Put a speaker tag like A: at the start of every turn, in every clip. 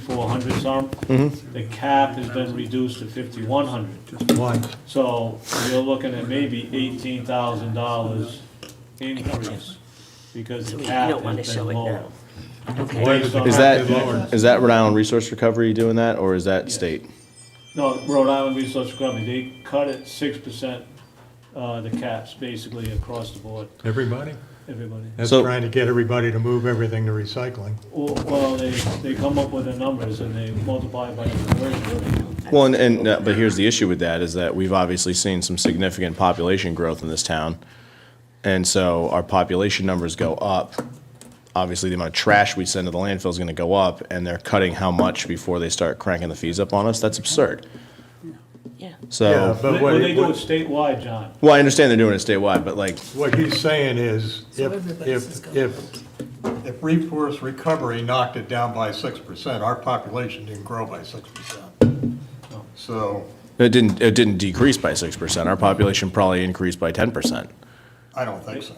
A: fifty-four hundred some.
B: Mm-hmm.
A: The cap has been reduced to fifty-one hundred.
B: Why?
A: So you're looking at maybe eighteen thousand dollars increase because the
C: You
A: cap
C: don't wanna
A: has
C: show
A: been
C: it
A: lower.
C: now. Okay.
A: Based on
D: Is
A: our-
D: that, is that Rhode Island Resource Recovery doing that, or is that
A: Yes.
D: state?
A: No, Rhode Island Resource Recovery, they cut it six percent, uh, the caps basically across the board,
B: Everybody?
A: everybody.
B: That's
D: So-
B: trying to get everybody to move everything to recycling.
A: Well- Well, they, they come up with the numbers and they multiply it by the conversion rate.
D: Well, and, and, uh, but here's the issue with that, is that we've obviously seen some significant population growth in this town. And so our population numbers go up. Obviously, the amount of trash we send to the landfill is gonna go up, and they're cutting how much before they start cranking the fees up on us? That's absurd.
C: Yeah.
B: Yeah,
D: So,
B: but
A: When they do it
B: what,
A: statewide, John,
D: well, I understand they're doing it statewide, but like,
B: what he's saying is,
E: So
B: if,
E: everybody's is
B: if,
E: going
B: if, if Resource Recovery knocked it down by six percent, our population didn't grow by six percent. So,
D: it didn't, it didn't decrease by six percent. Our population probably increased by ten percent.
B: I don't think so.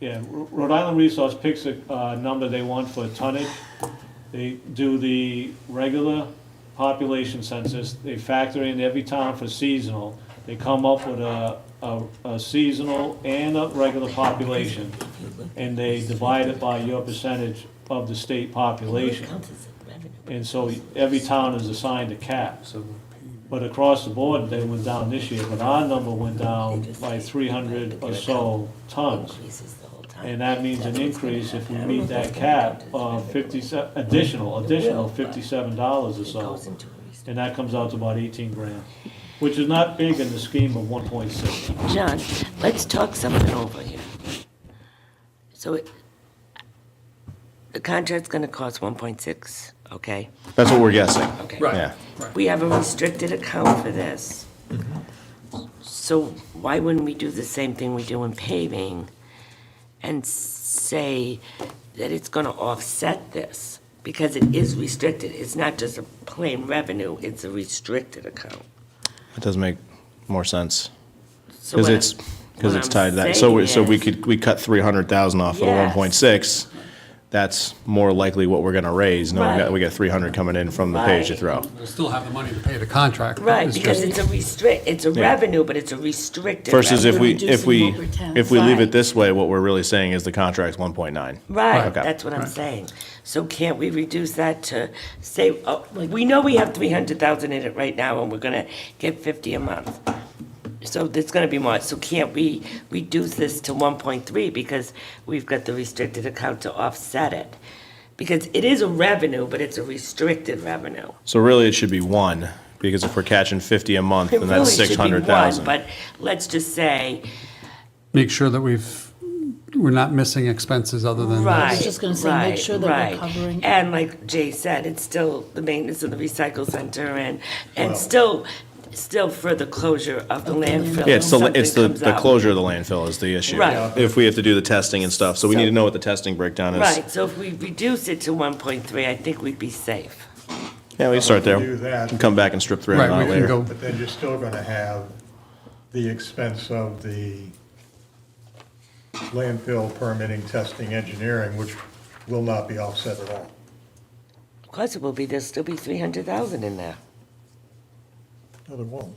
A: yeah, R- Rhode Island Resource picks a, uh, number they want for tonnage. They do the regular population census, they factor in every town for seasonal. They come up with a, a, a seasonal and a regular population, and they divide it by your percentage of the state population. And so every town is assigned a cap. But across the board, they went down this year, but our number went down by three hundred or so tons. And that means an increase if we meet that cap of fifty, additional, additional fifty-seven dollars or so. And that comes out to about eighteen grand, which is not big in the scheme of one point six.
C: John, let's talk something over here. So it, the contract's gonna cost one point six, okay?
D: That's what we're guessing.
C: Okay.
D: Yeah.
E: Right,
C: We have a restricted account for this. So why wouldn't we do the same thing we do in paving and say that it's gonna offset this? Because it is restricted, it's not just a plain revenue, it's a restricted account.
D: It does make more sense.
C: So
D: Because
C: what
D: it's,
C: I'm-
D: because
C: what
D: it's
C: I'm
D: tied to that. So, we- so we
C: saying is-
D: could, we cut three hundred thousand off of the one
C: Yes.
D: point six. That's more likely what we're gonna raise, knowing that
C: Right.
D: we got three hundred coming in from the page you
C: Right.
D: throw.
F: We'll still have the money to pay the contract.
C: Right,
F: It's
C: because
F: just-
C: it's a restrict, it's a
D: Yeah.
C: revenue, but it's a restricted.
D: Versus if
C: revenue.
D: we,
E: reducing
D: if we,
E: what we're ta-
D: if we leave it
C: Right.
D: this way, what we're really saying is the contract's one point nine.
C: Right,
D: Okay.
C: that's what I'm
F: Right.
C: saying. So can't we reduce that to, say, oh, we know we have three hundred thousand in it right now, and we're gonna get fifty a month. So there's gonna be more, so can't we reduce this to one point three, because we've got the restricted account to offset it? Because it is a revenue, but it's a restricted revenue.
D: So really, it should be one, because if we're catching fifty a month,
C: It
D: then that's
C: really should be
D: six hundred
C: one,
D: thousand.
C: But let's just say,
F: Make sure that we've, we're not missing expenses other than.
C: Right.
E: was just gonna say, make
C: right,
E: sure that we're
C: right.
E: covering-
C: And like Jay said, it's still the maintenance of the recycle center and, and still, still for the closure of the landfill.
D: Yeah, it's the,
C: if
D: it's the,
C: something comes
D: the
C: up.
D: closure of the landfill is the issue.
C: Right.
D: If we have to do the testing and stuff, so we need to
C: So-
D: know what the testing breakdown is.
C: Right, so if we reduce it to one point three, I think we'd be safe.
D: Yeah, we can start there.
B: Do that.
D: Come back and strip three hundred
F: Right,
D: out
F: we can
D: later.
F: go,
B: But then you're still gonna have the expense of the landfill permitting, testing, engineering, which will not be offset at all.
C: Of course it will be, there'll still be three hundred thousand in there.
B: No, there won't.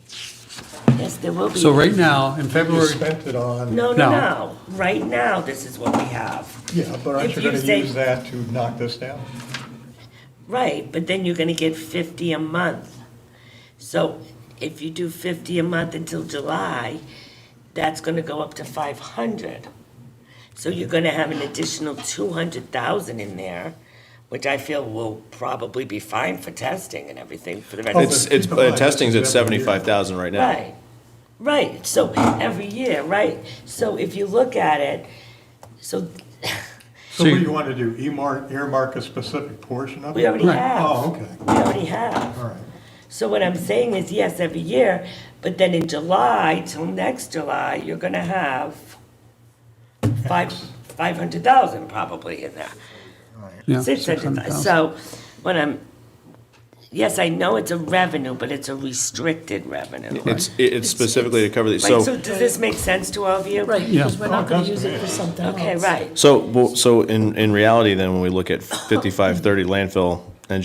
C: Yes, there will be.
F: so right now, in
B: You
F: February,
B: spent it on.
C: No, no,
F: No.
C: no, right now, this is what we have.
B: Yeah, but aren't
C: If
B: you
C: you
B: gonna
C: say-
B: use that to knock this down?
C: Right, but then you're gonna get fifty a month. So if you do fifty a month until July, that's gonna go up to five hundred. So you're gonna have an additional two hundred thousand in there, which I feel will probably be fine for testing and everything for the rest. of
D: It's, it's,
B: Keep in mind,
D: uh, testing's at
B: this is every year.
D: seventy-five thousand right now.
C: Right, right, so every year, right, so if you look at it, so
B: So what
F: So
B: do
F: you-
B: you want to do, earmark, earmark a specific portion of it?
C: we already
F: Right.
C: have.
B: Oh, okay,
C: We already have.
B: all right.
C: So what I'm saying is, yes, every year, but then in July, till next July, you're gonna have five, five hundred thousand probably in there.
F: yeah.
C: Six hundred thousand.
F: 600,000.
C: So when I'm, yes, I know it's a revenue, but it's a restricted revenue.
D: It's, it- it's specifically to cover these,
C: Right, so
D: so,
C: does this make sense to all of you?
E: right, because we're not gonna
B: Yeah.
E: use it for something else.
C: Okay, right,
D: so, well, so in, in reality, then, when we look at fifty-five thirty landfill